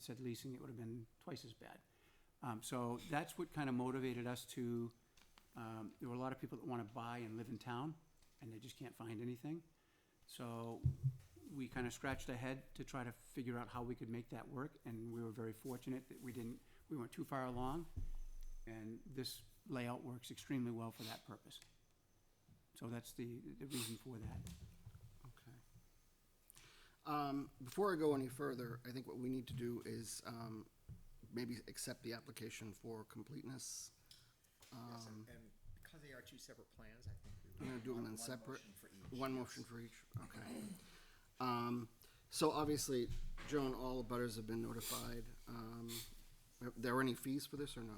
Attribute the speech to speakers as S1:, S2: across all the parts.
S1: said leasing, it would have been twice as bad. Um, so that's what kind of motivated us to, um, there were a lot of people that want to buy and live in town, and they just can't find anything. So we kind of scratched ahead to try to figure out how we could make that work, and we were very fortunate that we didn't, we weren't too far along. And this layout works extremely well for that purpose. So that's the, the reason for that.
S2: Okay. Um, before I go any further, I think what we need to do is, um, maybe accept the application for completeness.
S3: Yes, and
S2: Um,
S3: and because they are two separate plans, I think we would.
S2: I'm gonna do them in
S3: one
S2: separate,
S3: motion for each,
S2: one
S3: yes.
S2: motion for each, okay. Um, so obviously, Joan, all the butters have been notified. Um, are there any fees for this or no?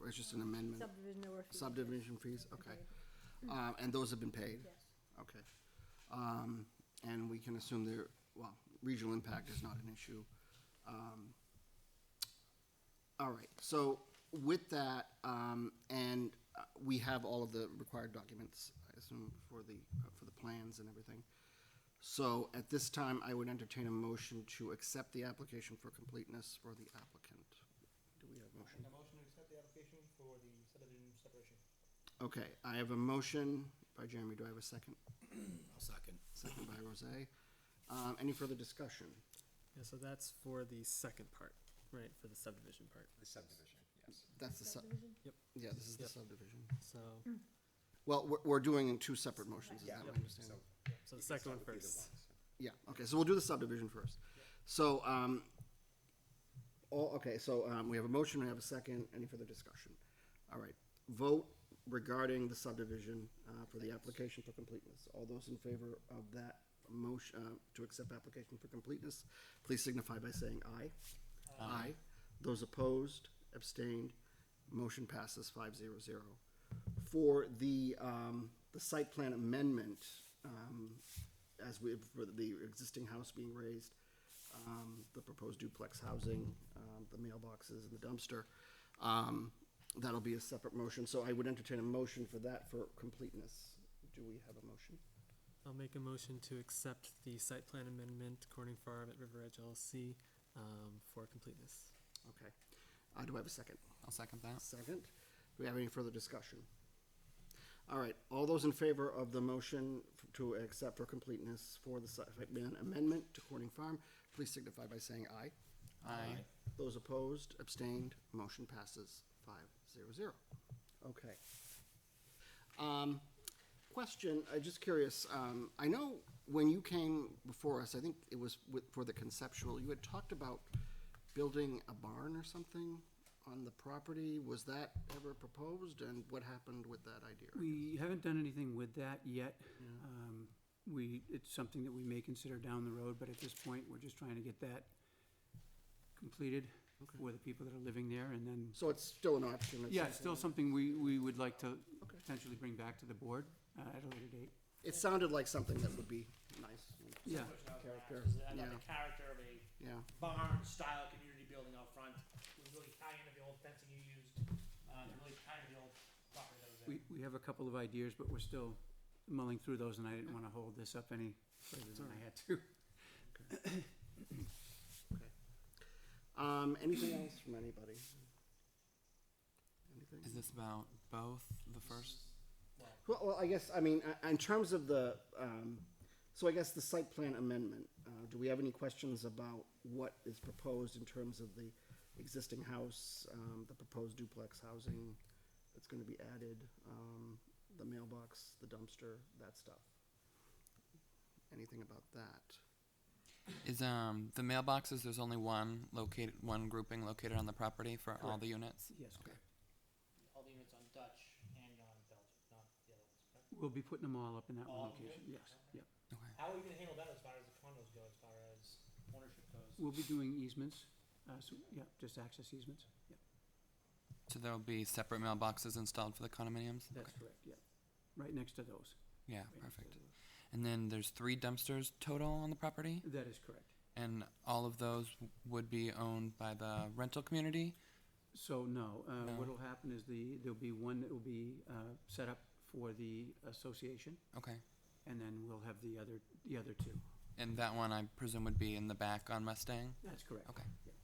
S2: Or it's just an amendment?
S4: Subdivision or fee.
S2: Subdivision fees, okay. Um, and those have been paid?
S4: Yes.
S2: Okay. Um, and we can assume there, well, regional impact is not an issue. Um, All right, so with that, um, and uh, we have all of the required documents, I assume, for the, uh, for the plans and everything. So at this time, I would entertain a motion to accept the application for completeness for the applicant. Do we have a motion?
S5: A motion to accept the application for the subdivision separation.
S2: Okay, I have a motion by Jeremy. Do I have a second?
S3: I'll second.
S2: Second by Rosé. Um, any further discussion?
S6: Yeah, so that's for the second part, right, for the subdivision part.
S3: The subdivision, yes.
S2: That's the sub,
S6: Yep.
S2: yeah, this is the
S6: Yep.
S2: subdivision.
S6: So,
S2: Well, we're, we're doing two separate motions, is
S3: Yeah.
S2: that my
S3: Yep.
S2: understanding?
S3: So
S6: so
S3: you
S6: the
S3: can
S6: second
S3: start
S6: one
S3: with either
S6: first.
S3: one, so.
S2: Yeah, okay, so we'll do the subdivision first. So, um, all, okay, so, um, we have a motion, we have a second, any further discussion? All right, vote regarding the subdivision, uh, for the application for completeness. All those in favor of that motion, uh, to accept application for completeness, please signify by saying aye. Aye. Those opposed, abstained, motion passes five zero zero. For the, um, the site plan amendment, um, as we, for the existing house being raised, um, the proposed duplex housing, um, the mailboxes and the dumpster, um, that'll be a separate motion, so I would entertain a motion for that for completeness. Do we have a motion?
S6: I'll make a motion to accept the site plan amendment, Corning Farm at River Edge LLC, um, for completeness.
S2: Okay, uh, do I have a second?
S7: I'll second that.
S2: Second. Do we have any further discussion? All right, all those in favor of the motion f- to accept for completeness for the site plan amendment to Corning Farm, please signify by saying aye.
S7: Aye.
S2: Those opposed, abstained, motion passes five zero zero. Okay. Um, question, I'm just curious, um, I know when you came before us, I think it was with, for the conceptual, you had talked about building a barn or something on the property, was that ever proposed, and what happened with that idea?
S1: We haven't done anything with that yet. Um, We, it's something that we may consider down the road, but at this point, we're just trying to get that completed for the people that are living there, and then,
S2: So it's still an option?
S1: yeah, it's still something we, we would like to
S2: Okay.
S1: potentially bring back to the board uh, at a later date.
S2: It sounded like something that would be nice,
S1: Yeah,
S2: Character,
S8: Is that about
S2: yeah.
S8: the character of a
S2: yeah.
S8: barn style community building out front? It was really tie into the old fencing you used, uh, to really tie into the old property that was there.
S1: we, we have a couple of ideas, but we're still mulling through those, and I didn't want to hold this up any further than I had to.
S2: Um, anything else from anybody? Anything?
S7: Is this about both the first?
S2: Well, well, I guess, I mean, uh, in terms of the, um, so I guess the site plan amendment, uh, do we have any questions about what is proposed in terms of the existing house, um, the proposed duplex housing that's gonna be added, um, the mailbox, the dumpster, that stuff? Anything about that?
S7: Is um the mailboxes? There's only one located, one grouping located on the property for all the units.
S1: Yes, correct.
S8: All the units on Dutch and on Belgium, not the other ones. correct?
S1: We'll be putting them all up in that
S8: All
S1: one
S8: of them?
S1: location, yes, yeah.
S7: Okay.
S8: How are we gonna handle that as far as the condos go, as far as ownership goes?
S1: We'll be doing easements, uh, so, yeah, just access easements, yeah.
S7: So there'll be separate mailboxes installed for the condominiums.
S1: That's correct, yeah. Right next to those.
S7: Yeah,
S1: right next to
S7: Oh, perfect.
S1: those.
S7: And then there's three dumpsters total on the property,
S1: That is correct.
S7: and all of those would be owned by the rental community.
S1: So, no, uh,
S7: No.
S1: what'll happen is the, there'll be one that will be, uh, set up for the association,
S7: Okay.
S1: and then we'll have the other, the other two.
S7: And that one, I presume, would be in the back on Mustang.
S1: That's correct.
S7: Okay.
S1: Yeah.